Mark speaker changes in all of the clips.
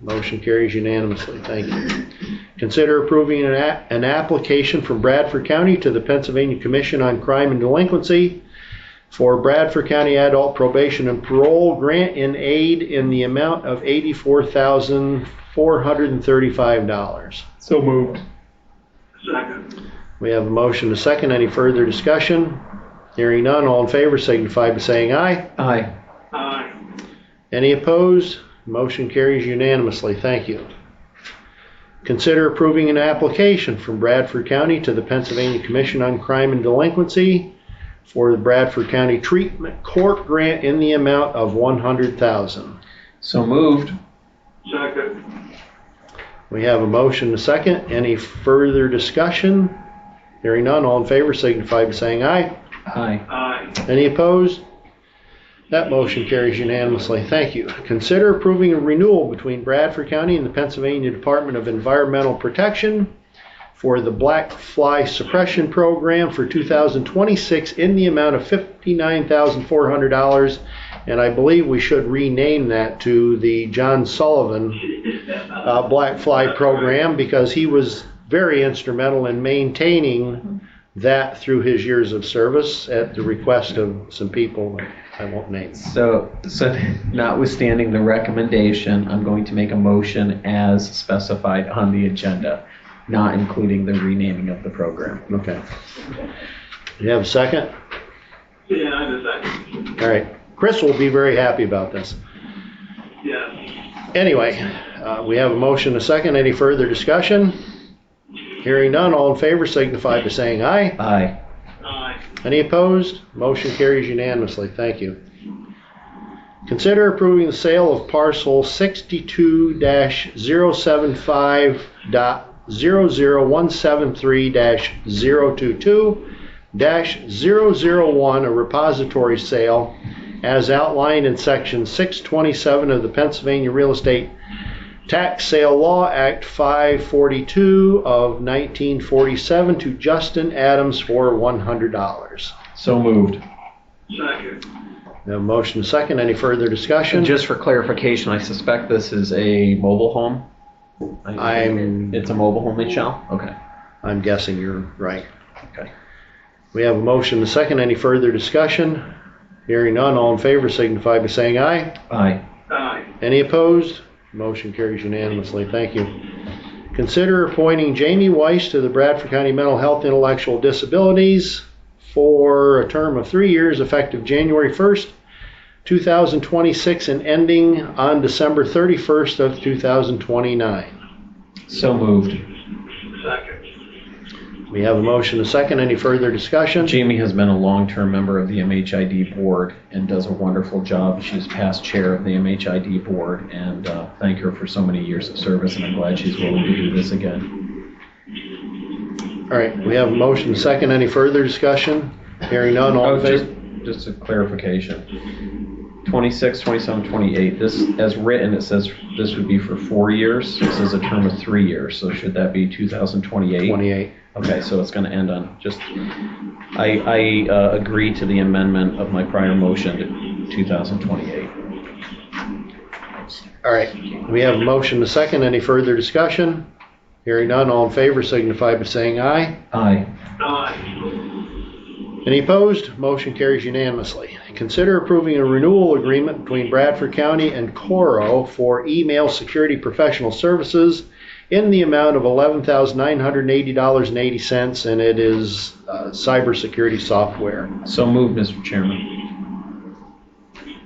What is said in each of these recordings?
Speaker 1: Motion carries unanimously. Thank you. Consider approving an, a- an application from Bradford County to the Pennsylvania Commission on Crime and Delinquency for Bradford County Adult Probation and Parole Grant in Aid in the amount of $84,435.
Speaker 2: So moved.
Speaker 3: second,
Speaker 1: We have a motion to second. Any further discussion? Hearing none, all in favor signify by saying aye.
Speaker 2: Aye.
Speaker 3: aye,
Speaker 1: Any opposed? Motion carries unanimously. Thank you. Consider approving an application from Bradford County to the Pennsylvania Commission on Crime and Delinquency for the Bradford County Treatment Court Grant in the amount of 100,000.
Speaker 2: So moved.
Speaker 3: second,
Speaker 1: We have a motion to second. Any further discussion? Hearing none, all in favor signify by saying aye.
Speaker 2: Aye.
Speaker 3: aye,
Speaker 1: Any opposed? That motion carries unanimously. Thank you. Consider approving a renewal between Bradford County and the Pennsylvania Department of Environmental Protection for the Black Fly Suppression Program for 2026 in the amount of $59,400. And I believe we should rename that to the John Sullivan uh, Black Fly Program because he was very instrumental in maintaining that through his years of service at the request of some people I won't name.
Speaker 2: So, so notwithstanding the recommendation, I'm going to make a motion as specified on the agenda, not including the renaming of the program.
Speaker 1: Okay. You have a second?
Speaker 3: yeah, I'm a second,
Speaker 1: All right. Chris will be very happy about this.
Speaker 3: yes,
Speaker 1: Anyway, uh, we have a motion, a second. Any further discussion? Hearing none, all in favor signify by saying aye.
Speaker 2: Aye.
Speaker 3: aye,
Speaker 1: Any opposed? Motion carries unanimously. Thank you. Consider approving the sale of parcel 62-075.00173-022-001, a repository sale as outlined in section 627 of the Pennsylvania Real Estate Tax Sale Law Act 542 of 1947 to Justin Adams for $100.
Speaker 2: So moved.
Speaker 3: second,
Speaker 1: We have a motion and a second. Any further discussion?
Speaker 2: And just for clarification, I suspect this is a mobile home?
Speaker 1: I'm-
Speaker 2: It's a mobile home in Shell? Okay.
Speaker 1: I'm guessing you're right.
Speaker 2: Okay.
Speaker 1: We have a motion and a second. Any further discussion? Hearing none, all in favor signify by saying aye.
Speaker 2: Aye.
Speaker 3: aye,
Speaker 1: Any opposed? Motion carries unanimously. Thank you. Consider appointing Jamie Weiss to the Bradford County Mental Health Intellectual Disabilities for a term of three years effective January 1st, 2026 and ending on December 31st of 2029.
Speaker 2: So moved.
Speaker 3: second,
Speaker 1: We have a motion, a second. Any further discussion?
Speaker 2: Jamie has been a long-term member of the MHID board and does a wonderful job. She's past chair of the MHID board and uh, thank her for so many years of service and I'm glad she's willing to do this again.
Speaker 1: All right, we have a motion, a second. Any further discussion? Hearing none, all
Speaker 2: Oh,
Speaker 1: in
Speaker 2: just,
Speaker 1: favor?
Speaker 2: just a clarification. 26, 27, 28, this, as written, it says this would be for four years. This is a term of three years, so should that be 2028?
Speaker 1: 28.
Speaker 2: Okay, so it's going to end on, just, I, I uh, agree to the amendment of my prior motion to 2028.
Speaker 1: All right, we have a motion, a second. Any further discussion? Hearing none, all in favor signify by saying aye.
Speaker 2: Aye.
Speaker 3: aye,
Speaker 1: Any opposed? Motion carries unanimously. Consider approving a renewal agreement between Bradford County and Coro for email security professional services in the amount of $11,980.80, and it is uh, cybersecurity software.
Speaker 2: So moved, Mr. Chairman.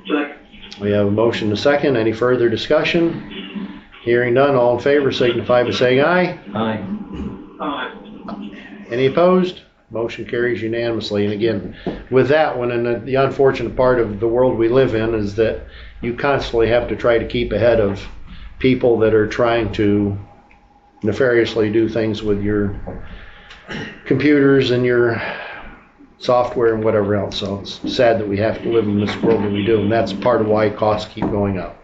Speaker 3: second,
Speaker 1: We have a motion, a second. Any further discussion? Hearing none, all in favor signify by saying aye.
Speaker 2: Aye.
Speaker 3: aye,
Speaker 1: Any opposed? Motion carries unanimously. And again, with that one, and the- the unfortunate part of the world we live in is that you constantly have to try to keep ahead of people that are trying to nefariously do things with your computers and your software and whatever else. So it's sad that we have to live in this world that we do, and that's part of why costs keep going up.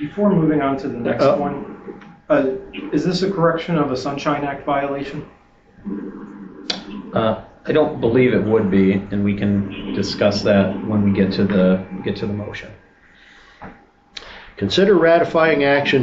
Speaker 4: Before moving on to the next
Speaker 1: Uh,
Speaker 4: one, uh, is this a correction of a Sunshine Act violation?
Speaker 2: Uh, I don't believe it would be, and we can discuss that when we get to the, get to the motion.
Speaker 1: Consider ratifying action